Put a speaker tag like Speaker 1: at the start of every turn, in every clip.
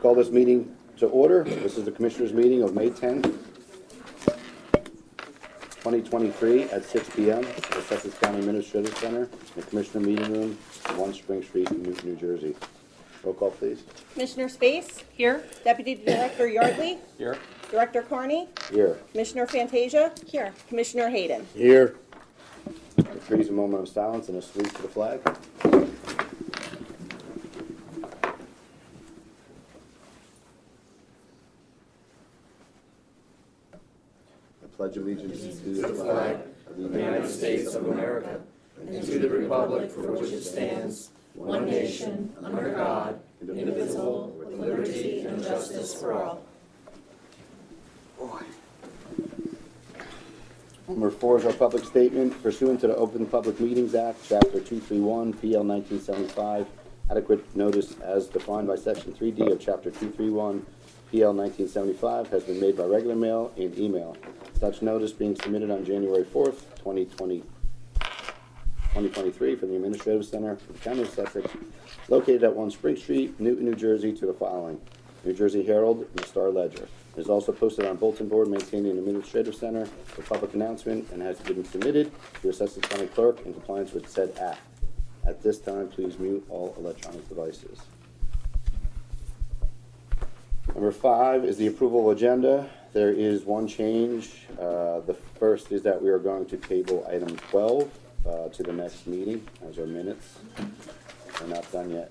Speaker 1: Call this meeting to order. This is the Commissioners' meeting of May 10th, 2023, at 6 PM at the Sussex County Administrative Center, in the Commissioner Meeting Room, 1 Spring Street, New New Jersey. Roll call, please.
Speaker 2: Commissioner Space? Here. Deputy Director Yardley? Here. Director Carney?
Speaker 1: Here.
Speaker 2: Commissioner Fantasia? Here. Commissioner Hayden?
Speaker 1: Here. Freeze a moment of silence and a salute to the flag. I pledge allegiance to the flag of the United Number four is our public statement pursuant to the Open Public Meetings Act, Chapter 231, PL 1975, adequate notice as defined by Section 3D of Chapter 231, PL 1975, has been made by regular mail and email. Such notice being submitted on January 4th, 2020, 2023 for the Administrative Center for the County of Sussex, located at 1 Spring Street, Newton, New Jersey, to the following: New Jersey Herald and the Star Ledger. It is also posted on bulletin board maintained in the Administrative Center for public announcement and has been submitted to the Sussex County Clerk in compliance with said act. At this time, please mute all electronic devices. Number five is the approval agenda. There is one change. Uh, The first is that we are going to table item 12 uh, to the next meeting, as our minutes. We're not done yet.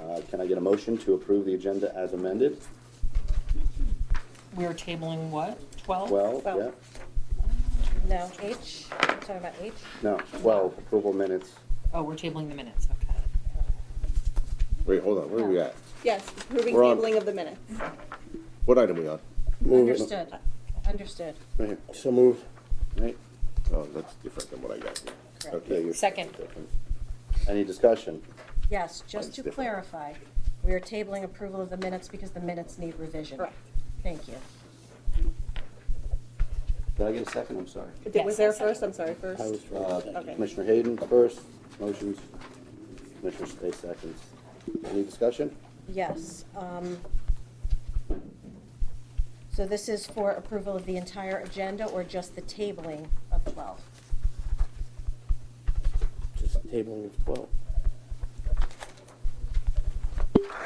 Speaker 1: Uh, Can I get a motion to approve the agenda as amended?
Speaker 3: We're tabling what, twelve?
Speaker 1: 12,
Speaker 2: Well-
Speaker 1: yeah?
Speaker 4: No, H, I'm talking about H.
Speaker 1: No, 12, approval minutes.
Speaker 3: Oh, we're tabling the minutes, okay.
Speaker 5: Wait, hold on, where are we at?
Speaker 2: Yes, approving
Speaker 5: We're on.
Speaker 2: tabling of the minutes.
Speaker 5: What item are we on?
Speaker 4: Understood, understood.
Speaker 1: Right here,
Speaker 6: So move.
Speaker 1: right?
Speaker 5: Oh, that's different than what I got. here.
Speaker 4: Correct.
Speaker 1: Yeah,
Speaker 5: Okay,
Speaker 1: you're-
Speaker 3: Second.
Speaker 1: Any discussion?
Speaker 4: Yes, just
Speaker 1: Mine's
Speaker 4: to
Speaker 1: different.
Speaker 4: clarify, we are tabling approval of the minutes because the minutes need revision.
Speaker 2: Correct.
Speaker 4: Thank you.
Speaker 1: Did I get a second? I'm sorry.
Speaker 2: Did- Was there first? I'm sorry, first.
Speaker 1: Uh,
Speaker 2: Okay.
Speaker 1: Commissioner Hayden first, motions. Commissioner Space seconds. Any discussion?
Speaker 4: Yes. um, So this is for approval of the entire agenda or just the tabling of 12?
Speaker 6: Just tabling of twelve.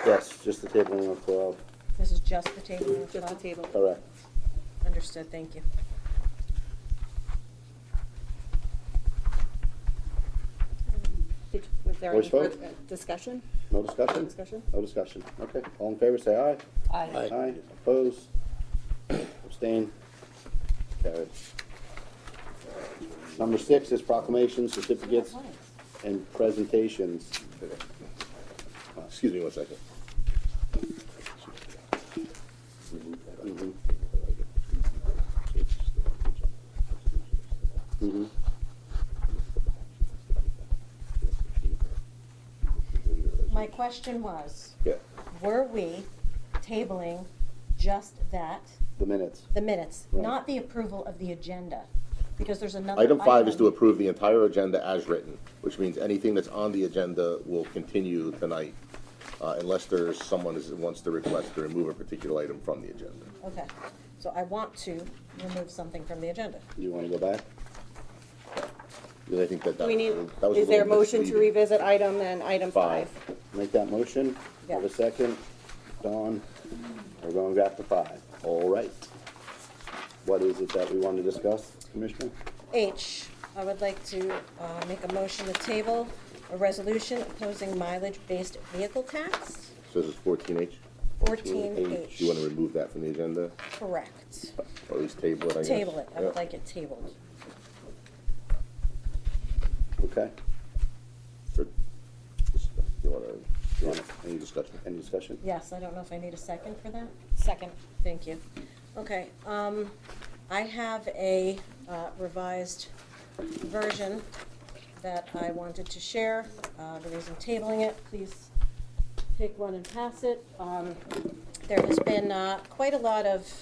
Speaker 1: Yes, just the tabling of 12,
Speaker 4: This is just the tabling of 12?
Speaker 2: Just the table.
Speaker 1: correct.
Speaker 4: Understood, thank you.
Speaker 2: Did- Was there any
Speaker 1: Voice vote?
Speaker 2: further discussion?
Speaker 1: No discussion?
Speaker 2: Discussion?
Speaker 1: No discussion, okay. All in favor, say aye.
Speaker 3: Aye.
Speaker 1: Aye, opposed, abstain, carried. Number six is proclamations, certificates, and presentations.
Speaker 5: Ah, Excuse me one second.
Speaker 4: My question was,
Speaker 5: Yeah,
Speaker 4: were we tabling just that
Speaker 1: The minutes,
Speaker 4: The minutes,
Speaker 1: Right.
Speaker 4: not the approval of the agenda, because there's another.
Speaker 5: item five is to approve the entire agenda as written, which means anything that's on the agenda will continue tonight uh, unless there's someone who wants to request to remove a particular item from the agenda.
Speaker 4: Okay, so I want to remove something from the agenda.
Speaker 1: you wanna go back?
Speaker 5: Because I think that
Speaker 2: Do
Speaker 5: that
Speaker 2: we need,
Speaker 5: that was a
Speaker 2: is there a
Speaker 5: little
Speaker 2: motion to
Speaker 5: misleading.
Speaker 2: revisit item then, item five?
Speaker 1: Make that motion, have
Speaker 4: Yeah.
Speaker 1: a second, Dawn, we're going back to five, all right. What is it that we want to discuss, Commissioner?
Speaker 4: H, I would like to uh, make a motion to table a resolution opposing mileage-based vehicle tax,
Speaker 5: So this is fourteen H.
Speaker 4: fourteen
Speaker 5: Do you want
Speaker 4: H.
Speaker 5: to remove that from the agenda?
Speaker 4: Correct.
Speaker 5: Or at least table it, I guess?
Speaker 4: Table it, I
Speaker 5: Yeah.
Speaker 4: would like it tabled.
Speaker 1: Okay,
Speaker 5: Or- You want to, you want to, any discussion?
Speaker 1: any discussion?
Speaker 4: Yes, I don't know if I need a second for that.
Speaker 3: Second.
Speaker 4: Thank you. Okay, um, I have a uh, revised version that I wanted to share. Uh, the reason tabling it, please take one and pass it. Um, there has been, uh, quite a lot of